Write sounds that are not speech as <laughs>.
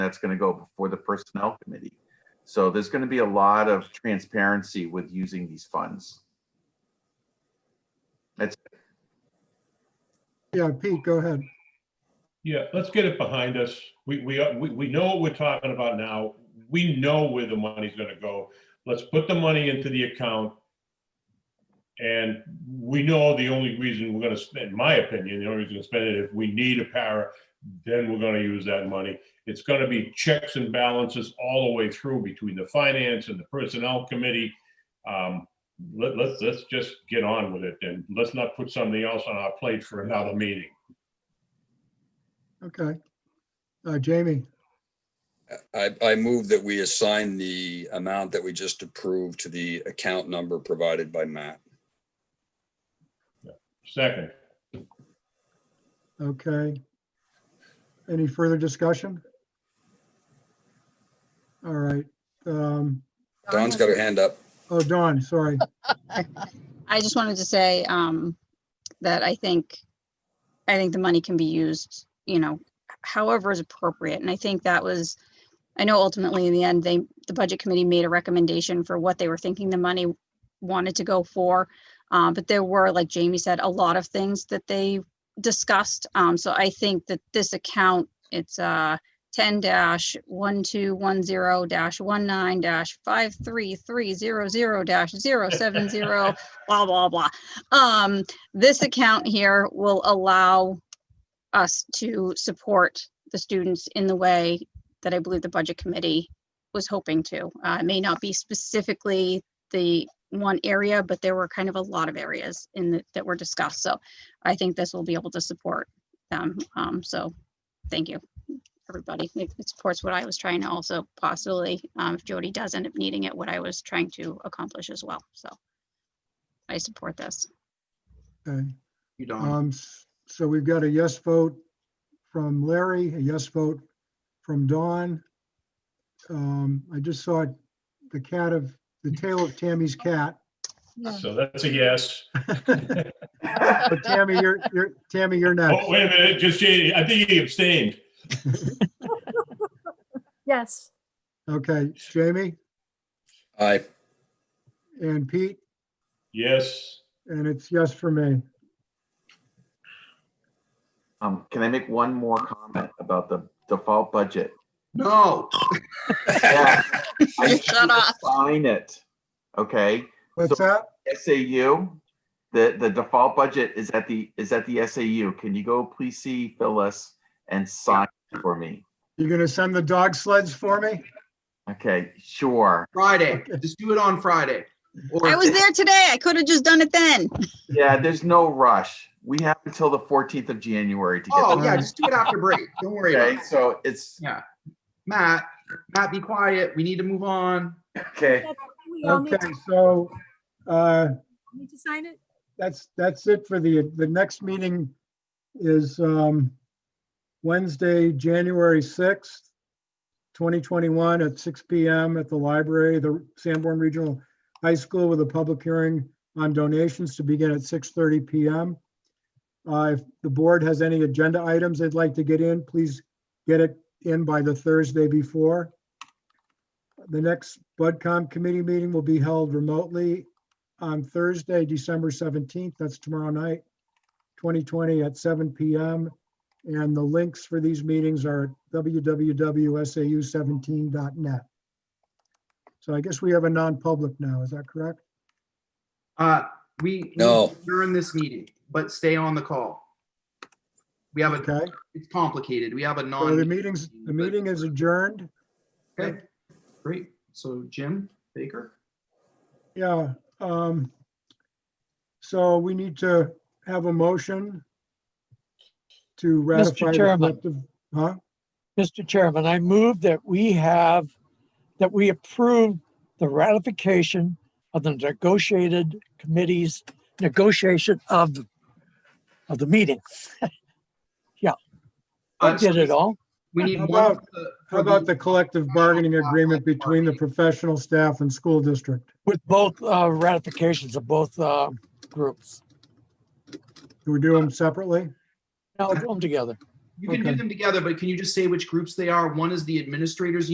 that's going to go before the Personnel Committee. So there's going to be a lot of transparency with using these funds. Yeah, Pete, go ahead. Yeah, let's get it behind us. We, we, we, we know what we're talking about now. We know where the money's gonna go. Let's put the money into the account. And we know the only reason we're gonna spend, in my opinion, the only reason to spend it, if we need a para, then we're gonna use that money. It's gonna be checks and balances all the way through between the finance and the personnel committee. Um, let, let's, let's just get on with it and let's not put something else on our plate for another meeting. Okay. Uh, Jamie, I, I move that we assign the amount that we just approved to the account number provided by Matt. Second. okay. Any further discussion? All right. Um, Don's got her hand up. oh, Dawn, sorry. I just wanted to say um, that I think, I think the money can be used, you know, however is appropriate. And I think that was, I know ultimately in the end, they, the budget committee made a recommendation for what they were thinking the money wanted to go for. Uh, But there were, like Jamie said, a lot of things that they discussed. Um, So I think that this account, it's uh, 10 dash 1210 dash 19 dash 53300 dash 070 blah blah blah. Um, this account here will allow us to support the students in the way that I believe the budget committee was hoping to. Uh, it may not be specifically the one area, but there were kind of a lot of areas in the, that were discussed. So I think this will be able to support them. Um, so thank you, everybody. It it supports what I was trying to also possibly, um, if Jody does end up needing it, what I was trying to accomplish as well. So I support this. Okay. You don't. Um, s- so we've got a yes vote from Larry, a yes vote from Dawn. Um, I just saw the cat of, the tail of Tammy's cat. So that's a yes. But Tammy, you're, you're, Tammy, you're Oh, next. wait a minute, just, Jamie, I think he abstained. Yes. Okay, Jamie Aye. and Pete, Yes, and it's yes for me. <laughs> Um, can I make one more comment about the default <laughs> budget? No, Yeah, I Shut up. Sign it. Okay, What's that? SAU, the, the default budget is at the, is at the SAU. Can you go please see Phyllis and sign it for me? You're gonna send the dog sleds for me? Okay, sure. Friday. Just do it on Friday. Or- I was there today. I could have just done it then. Yeah, there's no rush. We have until the 14th of January to get. Oh, this. yeah, just do it after break. Don't worry about Okay, it. so it's, Matt, Matt, be quiet. We need to move on. okay. We all need Okay, to so, uh, need to sign it? that's, that's it for the, the next meeting is, um, Wednesday, January sixth, twenty twenty-one at six P M at the library, the Sanborn Regional High School with a public hearing on donations to begin at six thirty P M. Uh, if the board has any agenda items they'd like to get in, please get it in by the Thursday before. The next Budcom committee meeting will be held remotely on Thursday, December 17th, that's tomorrow night, 2020 at 7 PM. And the links for these meetings are at www.sau17.net. So I guess we have a non-public now, is that correct? Uh, we No. You're in this meeting, but stay on the call. We have a, Okay, it's complicated. We have a so the non. meetings, the meeting is adjourned. Okay, great. So Jim Baker? Yeah, um, so we need to have a motion to ratify. the Chairman. collective- Huh? Mr. Chairman, I move that we have, that we approve the ratification of the negotiated committee's negotiation of, of the meeting. I Uh, did it all. We need How one. about- for the- How about the collective bargaining agreement between the professional staff and school district? with both uh, ratifications of both uh, groups. Do we do them separately? Now, do them together. You can do Okay. them together, but can you just say which groups they are? One is the administrators